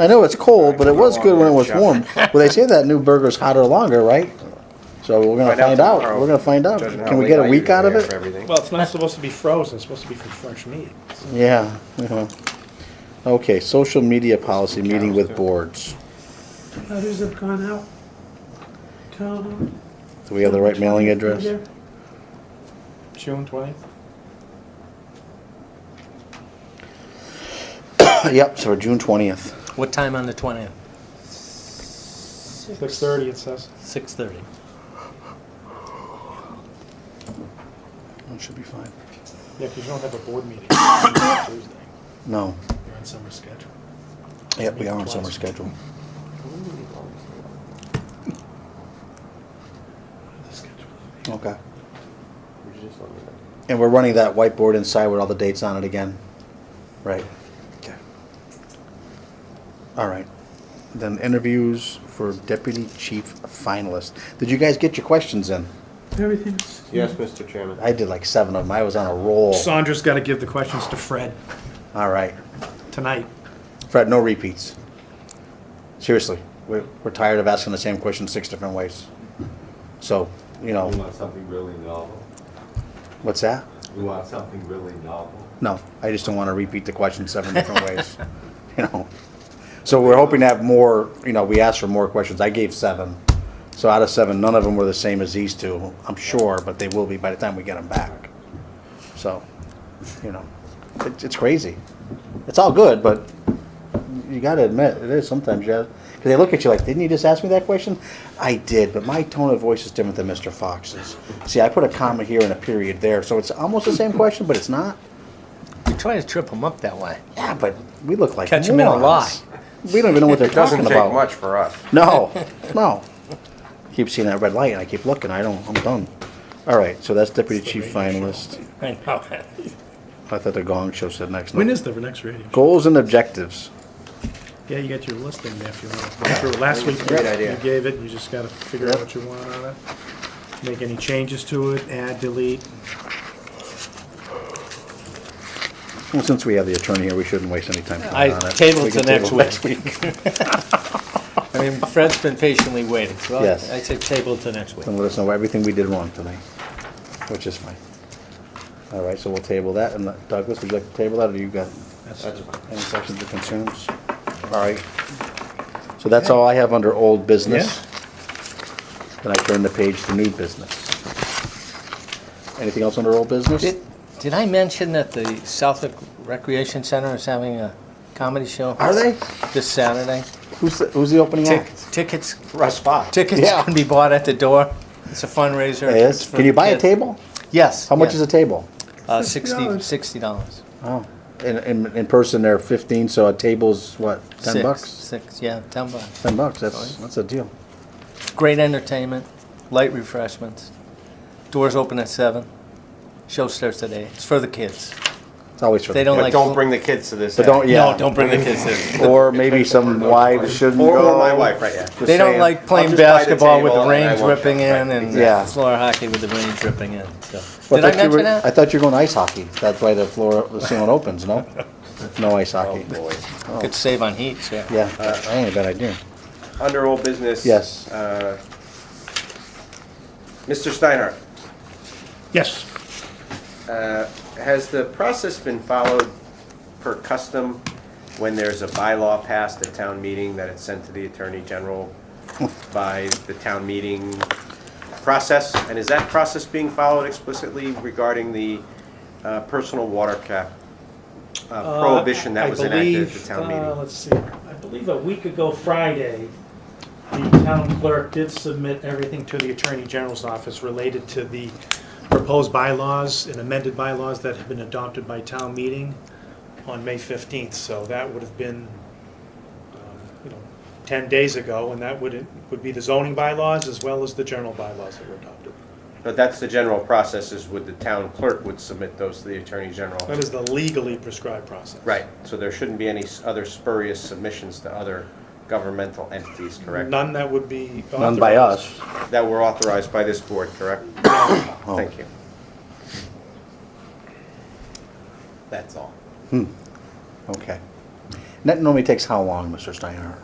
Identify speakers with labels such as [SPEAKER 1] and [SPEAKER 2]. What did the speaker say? [SPEAKER 1] I know it's cold, but it was good when it was warm. Well, they say that new burger's hotter longer, right? So we're gonna find out.
[SPEAKER 2] tomorrow,
[SPEAKER 1] We're gonna find out.
[SPEAKER 2] judging how
[SPEAKER 1] Can we
[SPEAKER 2] late
[SPEAKER 1] get a
[SPEAKER 2] I
[SPEAKER 1] week
[SPEAKER 2] usually
[SPEAKER 1] out of
[SPEAKER 2] have for
[SPEAKER 1] it?
[SPEAKER 2] everything.
[SPEAKER 3] Well, it's not supposed to be frozen, it's supposed to be from fresh meat. so-
[SPEAKER 1] Yeah, yeah. Okay, social media policy meeting with boards.
[SPEAKER 4] Others have gone out. Tom,
[SPEAKER 1] Do we have the right mailing address?
[SPEAKER 4] there.
[SPEAKER 3] June twentieth?
[SPEAKER 1] Yep, so June twentieth.
[SPEAKER 5] What time on the uh, 20th?
[SPEAKER 3] Six thirty, it says.
[SPEAKER 5] 6:30.
[SPEAKER 1] That should be fine.
[SPEAKER 3] Yeah, because you don't have a board meeting on Tuesday.
[SPEAKER 1] No.
[SPEAKER 3] You're on summer schedule.
[SPEAKER 1] Yep, we are on summer schedule.
[SPEAKER 3] The schedule.
[SPEAKER 1] Okay.
[SPEAKER 2] You should just let me know.
[SPEAKER 1] And we're running that whiteboard inside with all the dates on it again? Right. Okay. All right. Then interviews for deputy chief finalist. Did you guys get your questions in?
[SPEAKER 4] everything's.
[SPEAKER 2] Yes, Mr. Chairman.
[SPEAKER 1] I did like seven of them. I was on a roll.
[SPEAKER 3] Sandra's gotta give the questions to Fred
[SPEAKER 1] All right.
[SPEAKER 3] tonight.
[SPEAKER 1] Fred, no repeats. Seriously, we're, we're tired of asking the same question six different ways. So, you
[SPEAKER 6] We
[SPEAKER 1] know,
[SPEAKER 6] want something really novel.
[SPEAKER 1] what's that?
[SPEAKER 6] We want something really novel.
[SPEAKER 1] No, I just don't want to repeat the question seven different ways, you know. So we're hoping to have more, you know, we asked for more questions. I gave seven. So out of seven, none of them were the same as these two, I'm sure, but they will be by the time we get them back. So, you know, it's, it's crazy. It's all good, but you gotta admit, it is sometimes, yeah. Because they look at you like, didn't you just ask me that question? I did, but my tone of voice is different than Mr. Fox's. See, I put a comma here and a period there, so it's almost the same question, but it's not.
[SPEAKER 5] We try to trip them up that way.
[SPEAKER 1] Yeah, but we look like
[SPEAKER 5] Catch 'em in a
[SPEAKER 1] morons. We don't even know what they're
[SPEAKER 2] It doesn't
[SPEAKER 1] talking about.
[SPEAKER 2] take much for us.
[SPEAKER 1] No, no. Keep seeing that red light, and I keep looking. I don't. I'm done. All right, so that's deputy chief finalist.
[SPEAKER 5] I know.
[SPEAKER 1] I thought the gong show said next.
[SPEAKER 3] When
[SPEAKER 1] night.
[SPEAKER 3] is the next radio?
[SPEAKER 1] goals and objectives?
[SPEAKER 3] Yeah, you got your list in there if you want to go through it. Last week,
[SPEAKER 1] Great
[SPEAKER 3] you
[SPEAKER 1] idea.
[SPEAKER 3] gave it, you just gotta figure out
[SPEAKER 1] Yep.
[SPEAKER 3] what you want on it. Make any changes to it, add, delete.
[SPEAKER 1] Well, since we have the attorney here, we shouldn't waste any time.
[SPEAKER 5] I
[SPEAKER 1] on it.
[SPEAKER 5] tabled
[SPEAKER 1] We
[SPEAKER 5] to
[SPEAKER 1] can
[SPEAKER 5] next
[SPEAKER 1] table
[SPEAKER 5] week. I mean, Fred's been patiently waiting, so I
[SPEAKER 1] Yes.
[SPEAKER 5] I said table to next week.
[SPEAKER 1] And let us know everything we did wrong tonight, which is fine. All right, so we'll table that. And uh, Douglas, would you like to table that, or you got any questions or concerns? All right. So that's all I have under old business. Then I turn the page to new business. Anything else under old business?
[SPEAKER 5] Did did I mention that the Southwick Recreation Center is having a comedy show?
[SPEAKER 1] Are they?
[SPEAKER 5] This Saturday.
[SPEAKER 1] Who's, the- who's the opening
[SPEAKER 5] Tic-
[SPEAKER 1] act?
[SPEAKER 5] Tickets,
[SPEAKER 2] Russ Fox.
[SPEAKER 5] tickets
[SPEAKER 1] Yeah.
[SPEAKER 5] can be bought at the door. It's a fundraiser. It's
[SPEAKER 1] Yes,
[SPEAKER 5] for
[SPEAKER 1] can you buy a
[SPEAKER 5] kids.
[SPEAKER 1] table?
[SPEAKER 5] Yes.
[SPEAKER 1] How much is a table?
[SPEAKER 5] Uh,
[SPEAKER 4] $50.
[SPEAKER 5] sixty dollars.
[SPEAKER 1] Oh, in, in, in person they're fifteen, so a table's what, ten bucks?
[SPEAKER 5] Six, yeah, ten bucks.
[SPEAKER 1] Ten bucks, that's, that's a deal.
[SPEAKER 5] Great entertainment, light refreshments. Doors open at seven. Show starts at eight. It's for the kids.
[SPEAKER 1] It's always for.
[SPEAKER 5] They
[SPEAKER 1] the
[SPEAKER 5] don't
[SPEAKER 1] kids.
[SPEAKER 2] But
[SPEAKER 5] like-
[SPEAKER 2] don't bring the kids to this.
[SPEAKER 1] But don't,
[SPEAKER 2] act.
[SPEAKER 1] yeah.
[SPEAKER 5] No, don't bring the kids in.
[SPEAKER 1] Or maybe some wives shouldn't
[SPEAKER 2] Or
[SPEAKER 1] go.
[SPEAKER 2] or my wife, right, yeah.
[SPEAKER 1] Just
[SPEAKER 5] They don't
[SPEAKER 1] saying.
[SPEAKER 5] like
[SPEAKER 2] I'll
[SPEAKER 5] playing
[SPEAKER 2] just buy the
[SPEAKER 5] basketball with the
[SPEAKER 2] table and I
[SPEAKER 5] rain
[SPEAKER 2] won't-
[SPEAKER 5] dripping in
[SPEAKER 2] Right,
[SPEAKER 5] and
[SPEAKER 1] Yeah.
[SPEAKER 5] floor hockey with the rain dripping in. So.
[SPEAKER 1] Well,
[SPEAKER 5] Did I
[SPEAKER 1] thought you
[SPEAKER 5] mention
[SPEAKER 1] were- I
[SPEAKER 5] that?
[SPEAKER 1] thought you were going ice hockey. That's why the floor, the ceiling opens, no? No ice
[SPEAKER 2] Oh,
[SPEAKER 1] hockey.
[SPEAKER 2] boy.
[SPEAKER 5] Good save on heat, yeah.
[SPEAKER 1] Yeah, that ain't a bad idea.
[SPEAKER 2] Under old business.
[SPEAKER 1] Yes.
[SPEAKER 2] uh, Mr. Steinhardt,
[SPEAKER 3] Yes,
[SPEAKER 2] uh, has the process been followed per custom when there's a bylaw passed at town meeting that it's sent to the Attorney General by the town meeting process? And is that process being followed explicitly regarding the uh, personal water cap uh, prohibition that
[SPEAKER 3] I
[SPEAKER 2] was enacted at the
[SPEAKER 3] believe,
[SPEAKER 2] town
[SPEAKER 3] uh,
[SPEAKER 2] meeting?
[SPEAKER 3] Let's see, I believe a week ago Friday, the town clerk did submit everything to the Attorney General's office related to the proposed bylaws and amended bylaws that have been adopted by town meeting on May 15th. So that would have been, um, you know, 10 days ago, and that would, would be the zoning bylaws as well as the general bylaws that were adopted.
[SPEAKER 2] But that's the general process is would the town clerk would submit those to the Attorney General?
[SPEAKER 3] That is the legally prescribed process.
[SPEAKER 2] Right, so there shouldn't be any s- other spurious submissions to other governmental entities, correct?
[SPEAKER 3] None that would be authorized.
[SPEAKER 1] None by us.
[SPEAKER 2] That were authorized by this board, correct? Thank you. That's all.
[SPEAKER 1] Okay. That normally takes how long, Mr. Steinhardt?